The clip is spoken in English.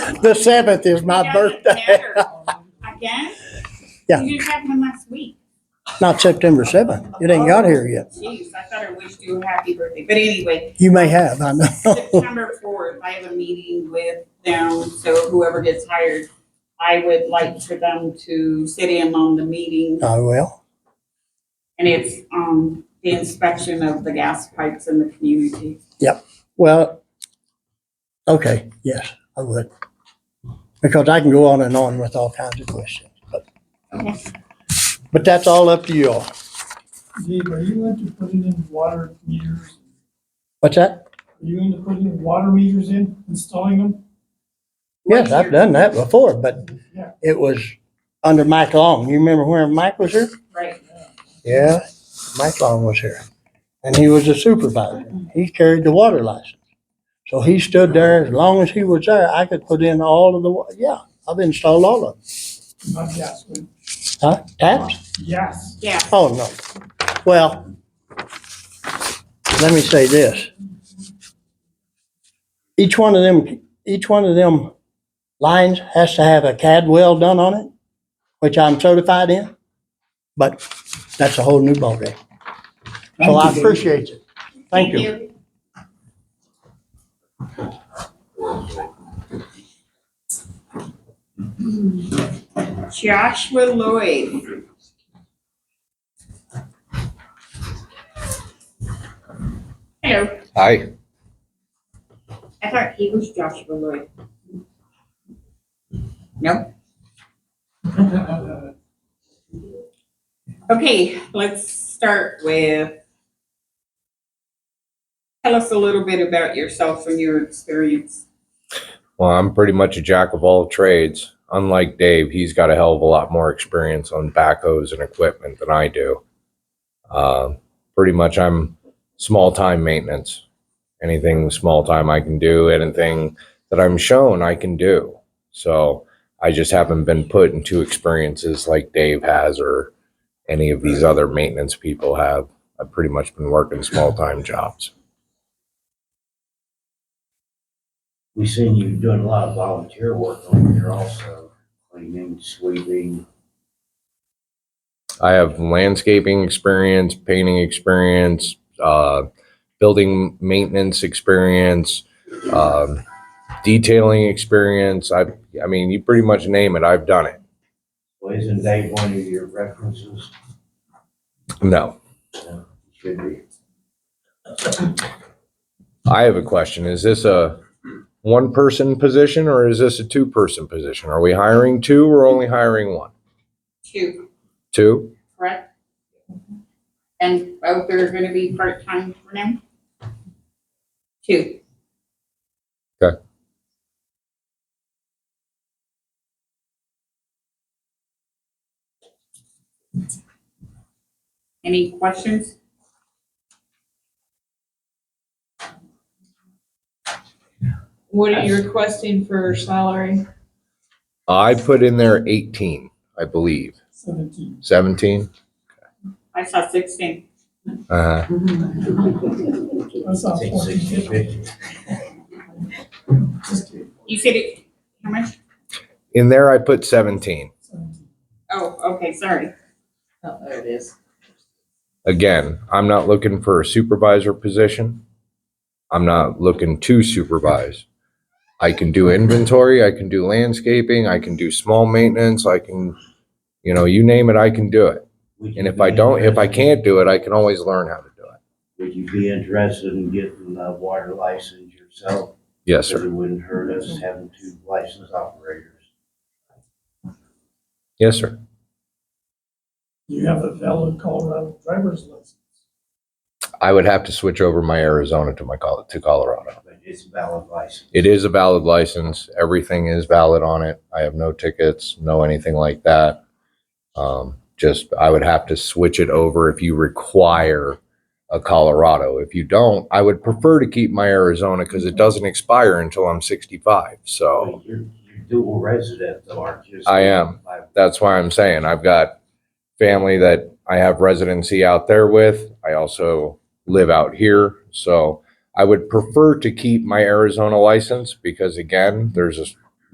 The seventh is my birthday. Again? Yeah. You just had one last week. Not September seventh. It ain't got here yet. Jeez, I thought I wished you a happy birthday. But anyway, You may have, I know. September fourth, I have a meeting with them, so whoever gets hired, I would like for them to sit in on the meeting. I will. And it's, um, the inspection of the gas pipes in the community. Well, okay, yes, I would. Because I can go on and on with all kinds of questions, but, Okay. but that's all up to you all. Dave, are you into putting in water meters? What's that? Are you into putting water meters in, installing them? Yes, I've done that before, but Yeah. it was under Mike Long. You remember when Mike was here? Right. Yeah, Mike Long was here. And he was a supervisor. He carried the water license. So he stood there, as long as he was there, I could put in all of the, wa- yeah, I've installed all of them. Not gas, but Huh? Taps? yes. Yeah, Oh, no. Well, let me say this. Each one of them, each one of them lines has to have a Cadwell done on it, which I'm certified in. But that's a whole new ballgame. So I appreciate it. Thank you. Joshua Lloyd. Hello, Hi. I thought he was Joshua Lloyd. No, okay, let's start with. Tell us a little bit about yourself and your experience. Well, I'm pretty much a jack of all trades. Unlike Dave, he's got a hell of a lot more experience on backhoes and equipment than I do. Uh, pretty much, I'm small time maintenance. Anything small time I can do, anything that I'm shown I can do. So I just haven't been put into experiences like Dave has or any of these other maintenance people have. I've pretty much been working small time jobs. We seen you doing a lot of volunteer work over here also, cleaning, sweeping. I have landscaping experience, painting experience, uh, building maintenance experience, um, detailing experience. I, I mean, you pretty much name it, I've done it. Well, isn't Dave one of your references? No, Should be. I have a question. Is this a one person position or is this a two person position? Are we hiring two or only hiring one? Two, Two? correct? And both are gonna be part-time for now? Two. Okay. Any questions? What are you requesting for salary? I put in there 18, I believe. Seventeen. 17? I saw sixteen. Uh, That sounds Six, sixty, fourteen. fifty. Just kidding. You said it, how much? in there, I put 17. Seventeen. Oh, okay, sorry. Oh, there it is. Again, I'm not looking for a supervisor position. I'm not looking to supervise. I can do inventory, I can do landscaping, I can do small maintenance, I can, you know, you name it, I can do it. Would And you if be I don't, if I interested- can't do it, I can always learn how to do it. Would you be interested in getting a water license yourself? Yes, sir. It wouldn't hurt us having two licensed operators. Yes, sir. You have a valid Colorado driver's license. I would have to switch over my Arizona to my Col- to Colorado. But it's a valid license. It is a valid license. Everything is valid on it. I have no tickets, no anything like that. Um, just I would have to switch it over if you require a Colorado. If you don't, I would prefer to keep my Arizona because it doesn't expire until I'm 65. So But You're, you're dual resident though, aren't you? Oh. I am. By- that's why I'm saying I've got family that I have residency out there with. I also live out here. So I would prefer to keep my Arizona license because again, there's a